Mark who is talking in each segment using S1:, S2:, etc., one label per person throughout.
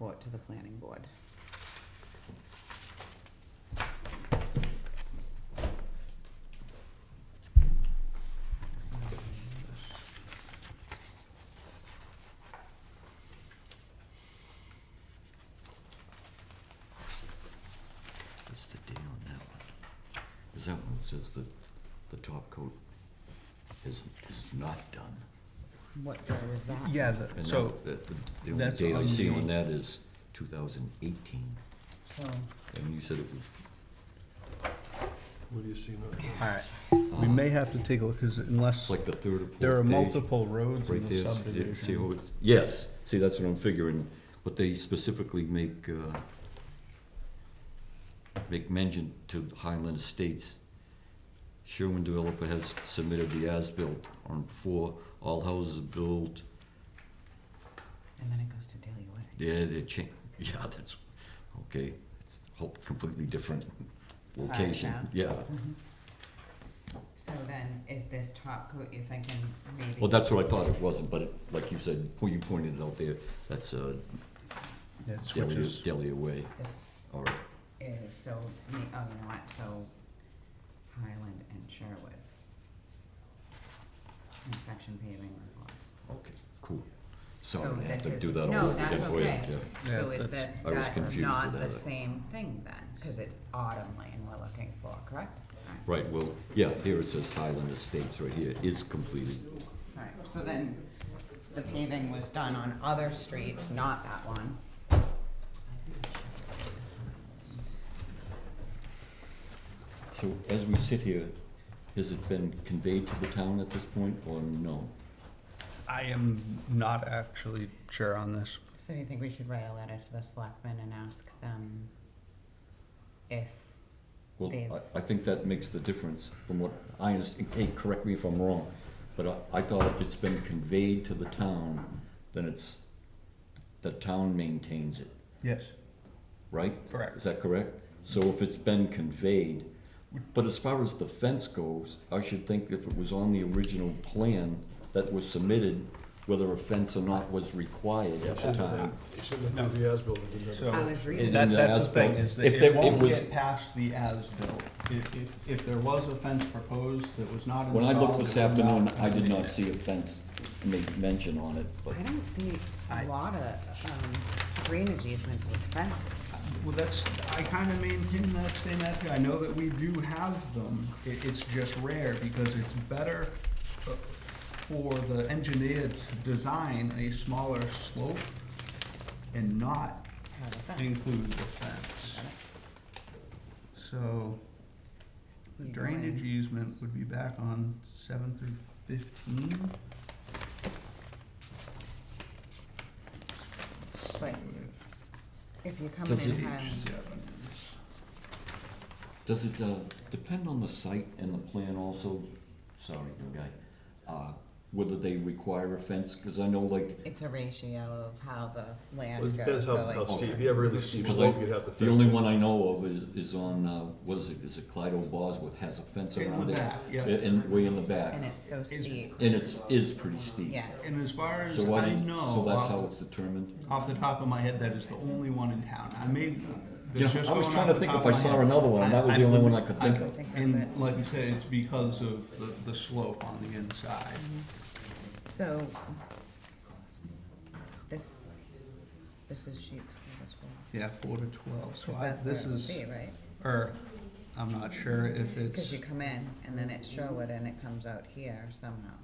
S1: report to the planning board.
S2: What's the date on that one? Is that one says that the top coat is, is not done?
S1: What day was that?
S3: Yeah, the-
S2: And
S3: so,
S2: that- that- The the only
S3: that's
S2: date I
S3: on
S2: see
S3: the-
S2: on that is two thousand eighteen,
S3: all
S2: and you said it was
S4: What do you see now?
S3: right, we may have to take a look, because
S2: It's
S3: unless,
S2: like the third or fourth
S3: there are
S2: page,
S3: multiple roads
S2: Right
S3: in the
S2: there, see- see how
S3: subdivision.
S2: it's, yes, see, that's what I'm figuring, but they specifically make, uh, make mention to Highland Estates. Sherwin developer has submitted the as-built on four, all houses are built,
S1: And then it goes to Daily Way.
S2: yeah, they cha, yeah, that's, okay, it's whole completely different
S1: Size
S2: location,
S1: now.
S2: yeah.
S1: Mm-hmm. So then, is this top coat, you're thinking maybe?
S2: Well, that's what I thought it wasn't, but it, like you said, you pointed it out there, that's, uh,
S3: That
S2: Delia,
S3: switches.
S2: Delia Way,
S1: This
S2: all right.
S1: is, so, me- oh, you know what, so Highland and Sherwood. Inspection paving reports.
S2: Okay, cool.
S1: So
S2: Sorry, I
S1: this
S2: have to
S1: is-
S2: do that all
S1: no,
S2: over again
S1: that's
S2: for you.
S1: okay.
S2: yeah.
S3: Yeah,
S1: So is
S3: that's-
S1: that,
S2: I was
S1: that's
S2: confused
S1: not
S2: with
S1: the
S2: that.
S1: same thing then, cause it's autumn lane we're looking for, correct?
S2: Right, well, yeah, here it says Highland Estates right here, is completed.
S1: Alright, so then, the paving was done on other streets, not that one.
S2: So as we sit here, has it been conveyed to the town at this point or no?
S3: I am not actually sure on this.
S1: So do you think we should write a letter to the selectmen and ask them if,
S2: Well,
S1: They've-
S2: I, I think that makes the difference from what I understand, hey, correct me if I'm wrong, but I, I thought if it's been conveyed to the town, then it's, the town maintains it,
S3: Yes.
S2: right? Is
S3: Correct.
S2: that correct? So if it's been conveyed, but as far as the fence goes, I should think if it was on the original plan that was submitted, whether a fence or not was required at the time.
S4: You should have done the as-built. and done it.
S3: So-
S1: I was reading,
S2: And
S3: That,
S2: the
S3: that's the
S2: as-built.
S3: thing, is that
S2: If there-
S3: it
S2: it
S3: won't
S2: was-
S3: get past the as-built. If, if, if there was a fence proposed that was not installed.
S2: When I looked this
S3: it would not
S2: afternoon, I did
S3: contain
S2: not
S3: it.
S2: see a fence made mention on it, but
S1: I don't see a
S3: I-
S1: lot of, um, drainage easements with fences.
S3: Well, that's, I kind of maintain that same attitude. I know that we do have them. It, it's just rare because it's better uh, for the engineer to design a smaller slope and not
S1: Have a fence.
S3: include the fence. So the
S1: Either
S3: drainage e-
S1: way.
S3: easement would be back on seven through fifteen.
S1: But if you're coming
S2: Does
S1: in
S2: it-
S1: Highland,
S3: Seven is.
S2: does it, uh, depend on the site and the plan also? Sorry, young guy. Uh, whether they require a fence, cause I know like,
S1: it's a ratio of how the
S4: Well, It
S1: land goes,
S4: depends
S1: so
S4: how, how
S1: like,
S4: steep, if you have really steep slope, you'd have to fix it.
S2: the only one I know of is, is on, uh, what is it, is it Clyde Bosworth has a fence
S3: In the
S2: around it?
S3: back, yeah.
S2: In, way in the back.
S1: and it's so steep,
S2: And it's, is pretty steep.
S1: yeah.
S3: And as far as
S2: So why,
S3: I
S2: did-
S3: know.
S2: so that's
S3: off
S2: how
S3: the
S2: it's determined?
S3: Off the top of my head, that is the only one in town. I may.
S2: Yeah,
S3: there's just
S2: I was
S3: going
S2: trying
S3: off
S2: to
S3: the
S2: think
S3: top
S2: if I
S3: of my
S2: saw
S3: head.
S2: another one, and that was the only one I could think
S1: I
S2: of.
S1: think that's it.
S3: And like you said, it's because of the, the slope on the inside.
S1: So, this, this is sheets four to twelve.
S3: Yeah, four to twelve, so
S1: 'cause
S3: I,
S1: that's where
S3: this
S1: it would
S3: is,
S1: be, Right,
S3: or, I'm not sure if
S1: cause
S3: it's,
S1: you come in and then it's Sherwood and it comes out here somehow,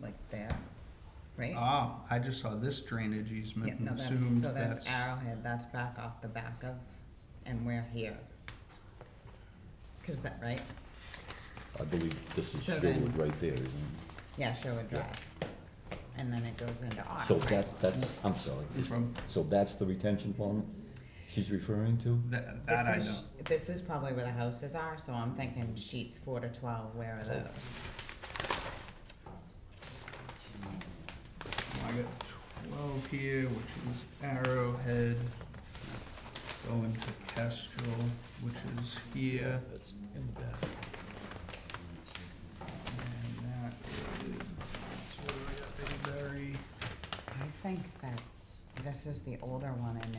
S1: like there, right?
S3: ah, I just saw this drainage
S1: Yeah,
S3: easement
S1: no,
S3: and
S1: that's,
S3: assumed
S1: so that's
S3: that's.
S1: Arrowhead, that's back off the back of, and we're here. Cause that, right,
S2: I believe this is
S1: So
S2: Sherwood
S1: then-
S2: right there, isn't it?
S1: yeah, Sherwood Drive, and then it goes into Otter,
S2: So
S1: right?
S2: that's, that's, I'm sorry, is-
S3: From-
S2: so that's the retention pond she's referring to?
S3: That,
S1: This
S3: that I
S1: is-
S3: know.
S1: This is probably where the houses are, so I'm thinking sheets four to twelve, where are those?
S3: I got twelve here, which is Arrowhead, going to Kestrel, which is here.
S4: That's in the back.
S3: And that is Berry.
S1: I think that this is the older one and